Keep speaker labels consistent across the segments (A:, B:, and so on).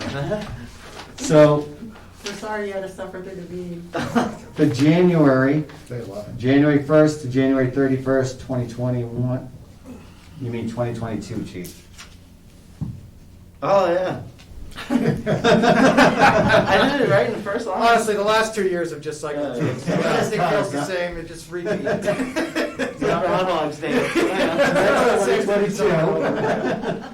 A: Uh-huh. So
B: We're sorry you had to suffer through the meeting.
A: the January,
C: They love it.
A: January 1st to January 31st, 2021, you mean 2022, chief?
D: Oh, yeah. I did it right in the first line.
E: Honestly, the last two years have just cycled through.
D: Yeah.
E: Everything feels the same, it just repeats.
D: It's not Groundhog's Day. Yeah.
E: Same thing.
A: 2022.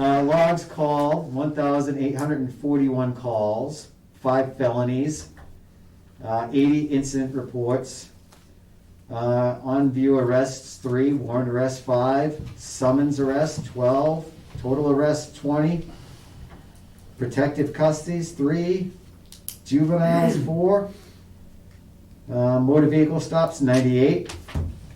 A: Uh, Logs call, 1,841 calls, five felonies, uh, 80 incident reports, uh, on-view arrests, three, warrant arrests, five, summons arrest, 12, total arrests, 20, protective custodies, three, juveniles, four, uh, motor vehicle stops, 98.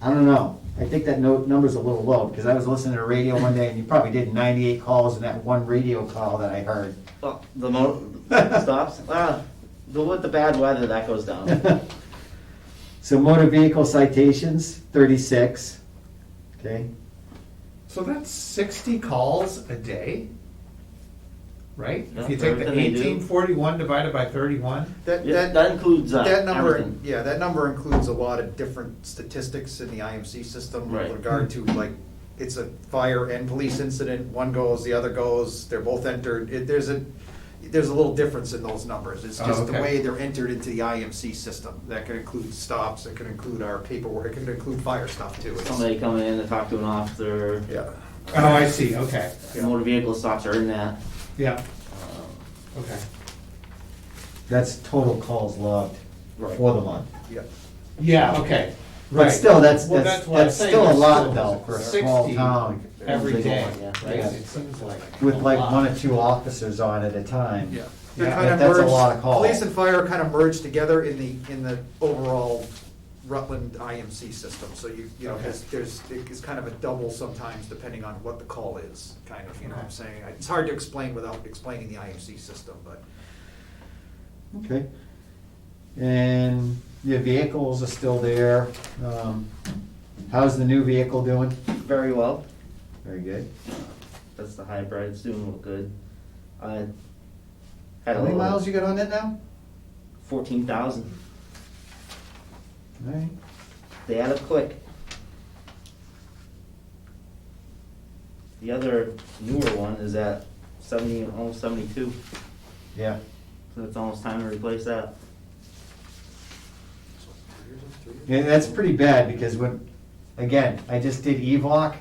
A: I don't know. I think that note number's a little low, because I was listening to the radio one day, and you probably did 98 calls in that one radio call that I heard.
D: Oh, the mo stops. Ah, the with the bad weather that goes down.
A: So motor vehicle citations, 36, okay?
C: So that's sixty calls a day, right? If you
D: Yeah,
C: take the
D: everything they do.
C: eighteen forty-one divided by thirty-one,
E: That,
D: Yeah,
E: that,
D: that includes uh,
E: that number,
D: everything.
E: yeah, that number includes a lot of different statistics in the IMC system with
D: Right.
E: regard
C: Hmm.
E: to like, it's a fire and police incident, one goes, the other goes, they're both entered. It, there's a, there's a little difference in those numbers. It's
C: Oh,
E: just the
C: okay.
E: way they're entered into the IMC system. That could include stops, it could include our paperwork, it could include fire stuff too. It's-
D: Somebody coming in to talk to an officer.
E: Yeah.
C: oh, I see, okay,
D: Motor vehicle stops are in that.
C: yeah,
D: Um,
C: okay.
A: That's total calls logged
E: Right.
A: for the month.
E: Yeah.
C: Yeah, okay, right.
A: But still, that's,
C: Well,
A: that's,
C: what I'm
A: that's
C: saying,
A: still a
C: it's
A: lot
C: still
A: though, for a small
C: 60
A: town,
C: Every
D: Big
C: day,
D: one, yeah.
C: right?
A: Yeah.
C: It seems like.
A: with
C: a
A: like
C: lot.
A: one or two officers on at a time.
E: Yeah. They're
C: Yeah,
E: kind of
A: that's a
E: merged-
A: lot of calls.
E: Police and fire kind of merged together in the, in the overall Rutland IMC system, so you, you know,
C: Okay.
E: there's, there's, it's kind of a double sometimes depending on what the call is, kind of, you know what I'm
C: Okay.
E: saying? It's hard to explain without explaining the IMC system, but.
A: Okay. And your vehicles are still there. Um, How's the new vehicle doing?
D: Very well.
A: Very good.
D: That's the hybrid. It's doing real good. I had
A: How
D: a
A: many
D: little
A: miles you got on that now?
D: Fourteen thousand.
A: All right.
D: They add up quick. The other newer one is at seventy, almost seventy-two,
A: Yeah.
D: so it's almost time to replace that.
A: Yeah, that's pretty bad because when, again, I just did EVOC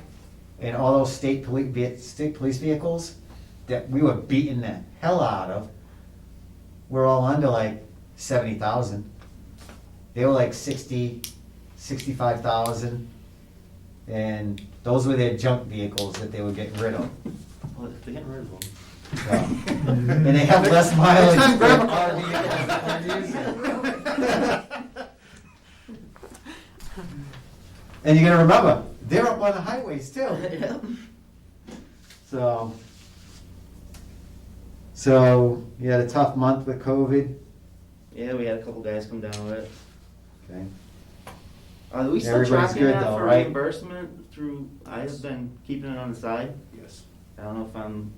A: and all those state police, state police vehicles that we were beating the hell out of, were all under like seventy thousand. They were like sixty, sixty-five thousand. And those were their junk vehicles that they were getting rid of.
D: Well, they're getting rid of them.
A: so. And they have less mileage.
E: Next time, grab a
A: than
E: couple.
A: RV and RVs. And you gotta remember, they're up on the highways too. So, so you had a tough month with COVID.
D: Yeah, we had a couple guys come down with it.
A: Okay.
D: Are we still
A: Everybody's
D: tracking
A: good
D: that
A: though,
D: for
A: right?
D: reimbursement through, I have been keeping it on the side.
E: Yes.
D: I don't know if I'm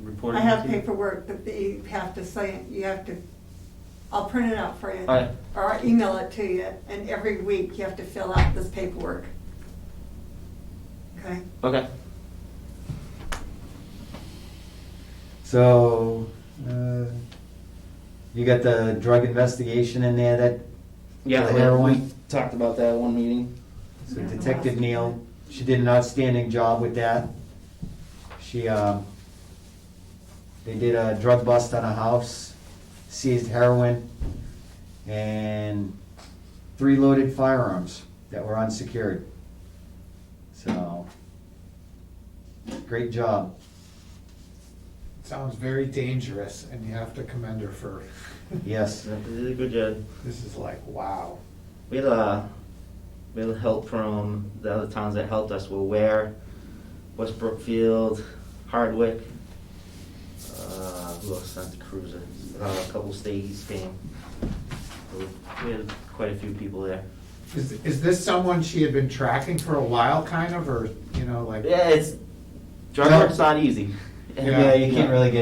D: reporting.
B: I have
D: to you.
B: paperwork that you have to sign, you have to, I'll print it out for you.
D: All right.
B: Or I'll email it to you, and every week you have to fill out this paperwork. Okay?
D: Okay.
A: So, uh, you got the drug investigation in there that,
D: Yeah,
A: The
D: we- we
A: heroin?
D: talked about that one meeting.
A: so Detective Neal, she did an outstanding job with that. She, um, they did a drug bust on a house, seized heroin, and three loaded firearms that were unsecured. So, great job.
C: Sounds very dangerous, and you have to commend her for,
A: Yes.
D: So They did a good job.
C: this is like, wow.
D: We had uh we had help from the other towns that helped us were Ware, West Brookfield, Hardwick, uh, who else Santa Cruz, uh, a couple states came. So We had quite a few people there.
C: Is, is this someone she had been tracking for a while, kind of, or, you know, like?
D: Yeah, it's drug
A: Yeah.
D: work's not easy.
C: Yeah,
A: Yeah, you can't really get